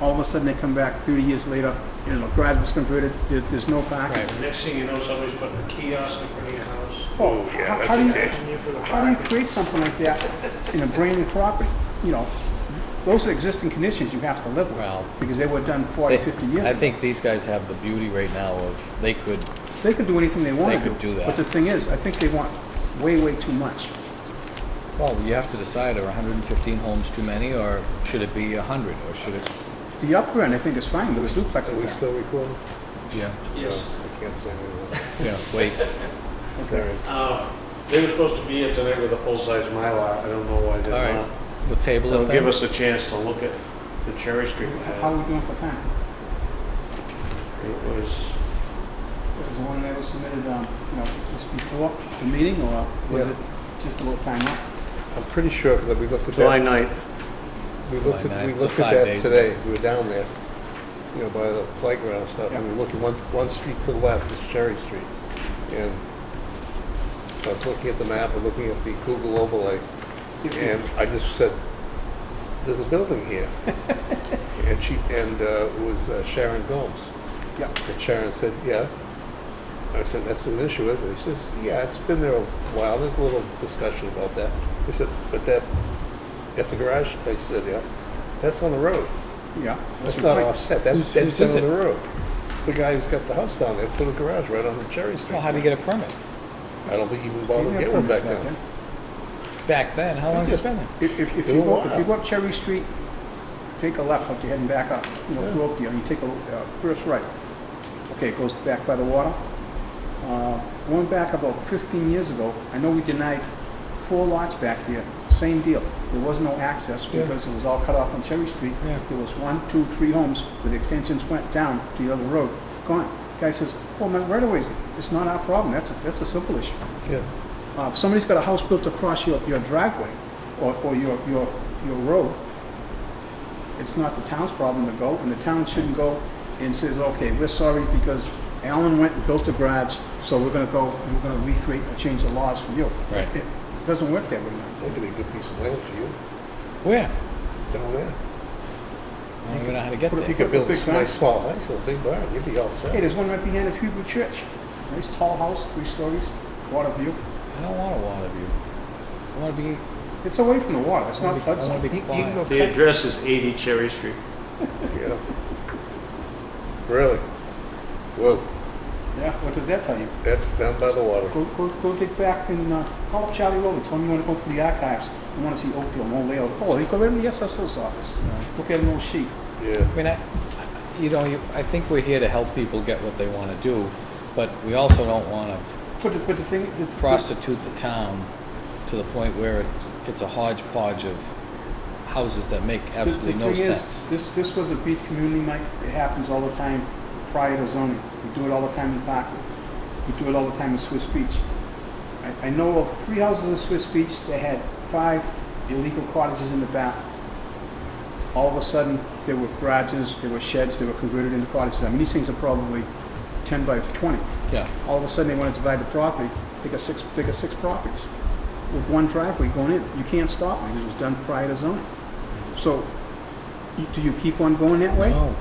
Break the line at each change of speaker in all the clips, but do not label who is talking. all of a sudden they come back thirty years later, you know, garage was converted, there, there's no parking.
Right.
Next thing you know, somebody's putting a kiosk in front of your house.
Oh,
yeah, that's okay.
How do you create something like that in a brand new property, you know? Those are existing conditions you have to live with,
Well,
because they were done 40, 50
they-
years
I
ago.
think these guys have the beauty right now of, they could,
They could do anything they want to
They
do.
could do that.
But the thing is, I think they want way, way too much.
well, you have to decide, are 115 homes too many, or should it be 100, or should it?
The upper end, I think, is fine, but the
Are we
duplexes are.
still recording?
Yeah.
Yes.
No, I can't say anything.
Yeah, wait,
Sorry.
Uh, They were supposed to be here tonight with a full-size Mylar. I don't know why
all
they're
right,
not.
we'll table
It'll
it
give
then.
us a chance to look at the Cherry Street
How are
map.
we doing for time?
It was,
Was the one that was submitted, um, you know, just before the meeting, or was
Yeah.
it just a little time up?
I'm pretty sure, because we looked at
July
that,
9th.
we looked
July
at, we
ninth, so
looked
five
at that
days
today, we were down there, you know, by the playground and stuff, and we were looking, one, one street to the left is Cherry Street. And I was looking at the map, and looking at the Google overlay, and I just said, there's a building here. And she, and uh, it was uh, Sharon Gomes.
Yeah.
And Sharon said, yeah. I said, that's an issue, isn't it? She says, yeah, it's been there a while. There's a little discussion about that. I said, but that, that's a garage? I said, yeah. That's on the road.
Yeah.
That's
a
not
great-
offset.
Who's-
That's, that's
whose is
down
it?
on the road. The guy who's got the house down there put a garage right on Cherry Street.
Well, how do you get a permit?
I don't think he even
You
bothered to
didn't
get
have
one
permits
back then.
Back then, how long has it been there?
If, if- if
It
you
was
go, if you
wild.
go up Cherry Street, take a left, up you're heading back up, you know, through Oakdale, you take a, uh, first right. Okay, it goes back by the water. Uh, Going back about fifteen years ago, I know we denied four lots back there, same deal. There was no access
Yeah.
because it was all cut off on Cherry Street.
Yeah.
There was one, two, three homes where the extensions went down to the other road, gone. Guy says, well, my right of ways, it's not our problem, that's, a- that's a simple issue.
Yeah.
Uh, if somebody's got a house built across your, your driveway or, or your, your, your road, it's not the town's problem to go, and the town shouldn't go and says, okay, we're sorry because Alan went and built a garage, so we're gonna go and we're gonna recreate, or change the laws for you.
Right.
It doesn't work that way, man.
That could be a good piece of land for you
Where?
down there.
I don't even know how to get
Put it-
You
there.
could build a
Big
s- nice small house, and a big barn. You'd be all
Hey,
set.
there's one right behind the Hebrew church. Nice tall house, three stories, water view.
I don't want a lot of you. I want to be,
It's away from the water, it's
I
not flood
want
zone.
to be quiet.
The address is 80 Cherry Street.
Yeah. Really? Whoa,
Yeah, what does that tell you?
that's down by the water.
Go, go, go dig back and, uh, call up Charlie Rowley, tell him you wanna go through the archives, you wanna see Oakdale, no layout, oh, they go right in the SSO's office, look at an old sheet.
Yeah.
I mean, I, you know, you, I think we're here to help people get what they want to do, but we also don't want to
But the, but the thing, the.
prostitute the town to the point where it's, it's a hodgepodge of houses that make
the- the
absolutely
thing
no
is,
sense.
This, this was a beach community, Mike, it happens all the time prior to zoning, we do it all the time in Parkwood, we do it all the time in Swiss Beach. I, I know of three houses in Swiss Beach that had five illegal cottages in the back. All of a sudden, there were garages, there were sheds, they were converted into cottages, I mean, these things are probably ten by twenty.
Yeah,
All of a sudden, they want to divide the property, they got six, they got six properties with one driveway going in. You can't stop it, because it was done prior to zoning. So, you- do you keep on going that way?
no,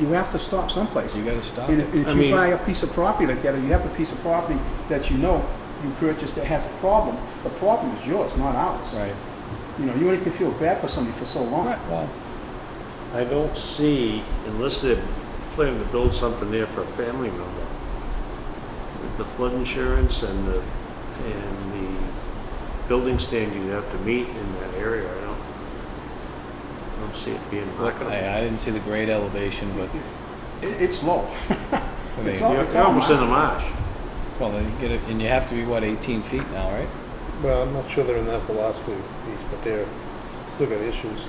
You have to stop someplace.
you gotta stop
And
it.
if and
I
if you
mean-
buy a piece of property like that, or you have a piece of property that you know you purchased that has a problem, the problem is yours, not ours.
Right.
You know, you only can feel bad for somebody for so long.
Right, well,
I don't see, unless they're planning to build something there for a family member, with the flood insurance and the, and the building standard you have to meet in that area, I don't, I don't see it being
look,
marketable.
I, I didn't see the grade elevation, but,
It, it's low.
I
It's
mean,
all-
You're you're almost in the marsh.
well, then you get it, and you have to be, what, eighteen feet now, right?
Well, I'm not sure they're in that velocity piece, but they're still got issues.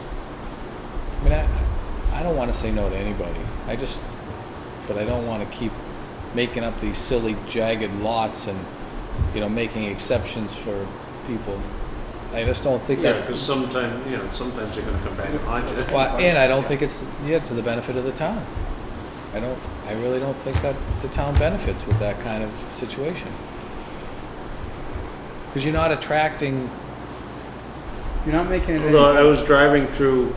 I mean, I, I don't want to say no to anybody. I just, but I don't want to keep making up these silly jagged lots and, you know, making exceptions for people. I just don't think
Yeah,
that's,
because sometimes, you know, sometimes they're gonna come back and haunt you.
well, and I don't think it's, yeah, to the benefit of the town. I don't, I really don't think that the town benefits with that kind of situation. Because you're not attracting,
You're not making it any.
Although I was driving through